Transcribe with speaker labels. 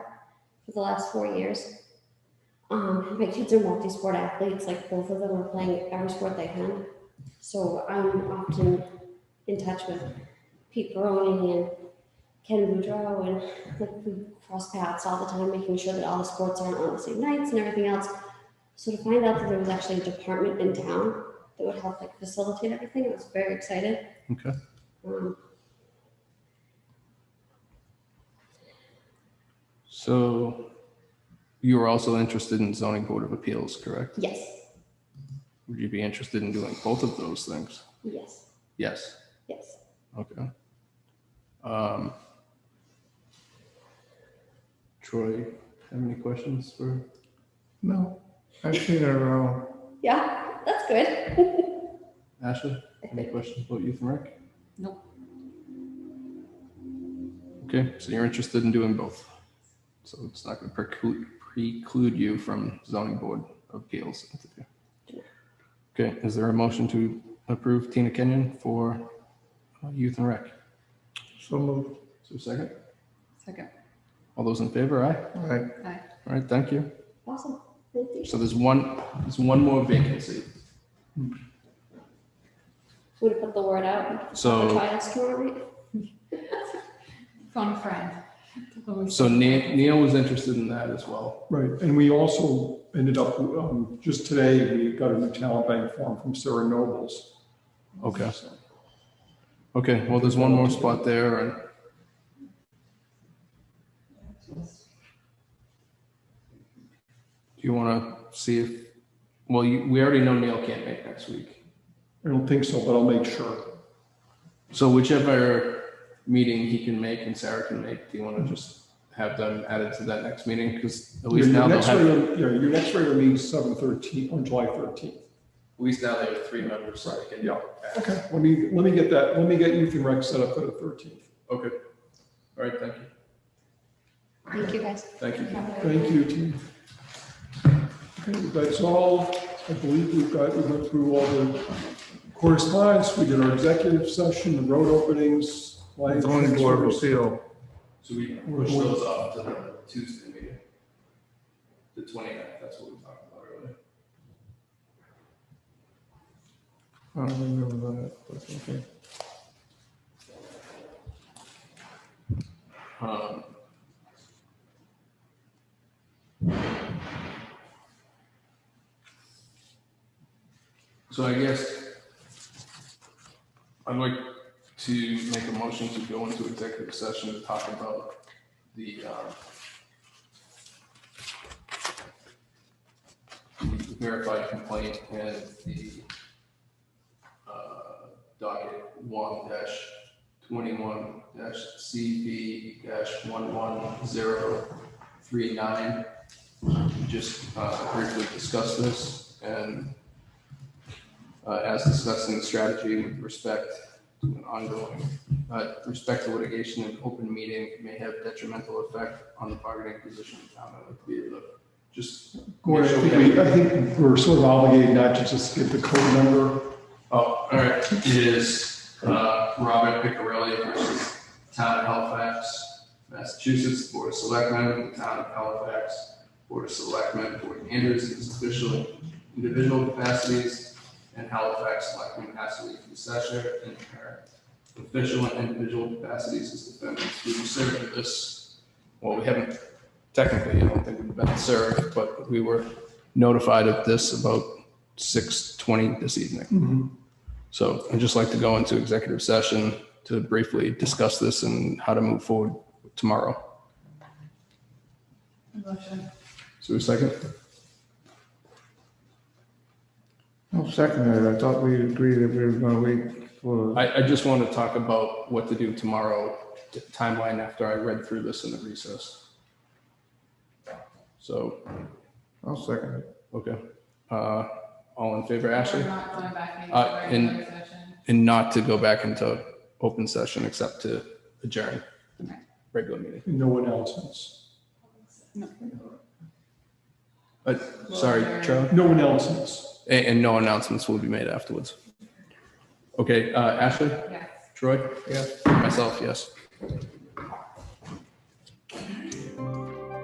Speaker 1: for the last four years. Um, my kids are multi-sport athletes, like both of them are playing every sport they can. So I'm often in touch with Pete Baroni and Ken Boudreau and like we cross paths all the time, making sure that all the sports aren't on the same nights and everything else. So to find out that there was actually a department in town that would help like facilitate everything, I was very excited.
Speaker 2: Okay.
Speaker 1: Um,
Speaker 2: So you are also interested in zoning board of appeals, correct?
Speaker 1: yes,
Speaker 2: Would you be interested in doing both of those things?
Speaker 1: yes,
Speaker 2: Yes.
Speaker 1: yes.
Speaker 2: Okay. Um, Troy, have any questions for?
Speaker 3: No, I've seen it all.
Speaker 1: Yeah, that's good.
Speaker 2: Ashley, any questions about youth and rec? Nope. Okay, so you're interested in doing both. So it's not gonna preclude, preclude you from zoning board of appeals. interview. Okay, is there a motion to approve Tina Kenyon for uh, youth and rec?
Speaker 3: So moved.
Speaker 2: So second,
Speaker 4: Second.
Speaker 2: all those in favor, aye?
Speaker 3: All right,
Speaker 2: All right, thank you.
Speaker 1: Awesome, thank you.
Speaker 2: So there's one, there's one more vacancy.
Speaker 1: Would have put the word out. for
Speaker 2: So,
Speaker 1: Trials tomorrow night.
Speaker 4: Phone a friend.
Speaker 2: so Ne- Neil was interested in that as well.
Speaker 5: Right, and we also ended up, um, just today, we got a new talent bank form from Sarah Nobles.
Speaker 2: Okay. Okay, well, there's one more spot there and do you want to see if, well, you, we already know Neil can't make next week.
Speaker 5: I don't think so, but I'll make sure.
Speaker 2: So whichever meeting he can make and Sarah can make, do you want to just have them added to that next meeting? Because at
Speaker 5: Your
Speaker 2: least now
Speaker 5: your
Speaker 2: they'll
Speaker 5: next
Speaker 2: have, at
Speaker 5: regular, yeah, your next regular meeting's seven thirteen, on July thirteenth.
Speaker 2: least now they have three members. so they can-
Speaker 5: Yeah. Okay, let me, let me get that, let me get Youth and Rec set up for the thirteenth.
Speaker 2: Okay. All right, thank you.
Speaker 1: Thank you, guys.
Speaker 2: Thank you.
Speaker 5: Thank you, team. Okay, that's all. I believe we've got, we went through all the correspondence, we did our executive session, the road openings. line
Speaker 3: zoning board of
Speaker 5: transfers.
Speaker 3: appeal.
Speaker 2: So we push those off to the Tuesday meeting. The 29th, that's what we talked about earlier.
Speaker 3: I don't remember that, but okay.
Speaker 2: Um, So I guess I'd like to make a motion to go into executive session to talk about the um, the verified complaint and the uh, docket one dash twenty-one dash CB dash one one zero three nine. Just uh, briefly discuss this and uh, as discussing the strategy with respect to an ongoing, uh, respect to litigation and open meeting may have detrimental effect on the bargaining position of the town. I'd like to be able to just,
Speaker 5: Gordon, I think we, I think we're sort of obligated not to just give the code number.
Speaker 2: oh, all right, it is uh, Robert Picarelli versus Town of Halifax, Massachusetts, Board of Selectmen, Town of Halifax, Board of Selectmen, Board Anders in his official individual capacities, and Halifax Selectman Ashley Fusasher in her official and individual capacities as defendants. We were served with this, well, we haven't technically, I don't think we've been served, but we were notified of this about six twenty this evening. So I'd just like to go into executive session to briefly discuss this and how to move forward tomorrow.
Speaker 4: Motion.
Speaker 2: So a second?
Speaker 3: No, second, I thought we agreed that we were gonna wait for,
Speaker 2: I, I just want to talk about what to do tomorrow, the timeline after I read through this in the recess. So,
Speaker 3: I'll second it.
Speaker 2: okay. Uh, all in favor,
Speaker 4: We're
Speaker 2: Ashley?
Speaker 4: not going back into
Speaker 2: Uh, and-
Speaker 4: regular session.
Speaker 2: And not to go back into open session except to adjourn the regular meeting.
Speaker 5: No announcements.
Speaker 2: Uh, sorry, Charlie?
Speaker 5: No announcements.
Speaker 2: And, and no announcements will be made afterwards. Okay, uh, Ashley?
Speaker 4: Yes.
Speaker 2: Troy? Yeah. Myself, yes.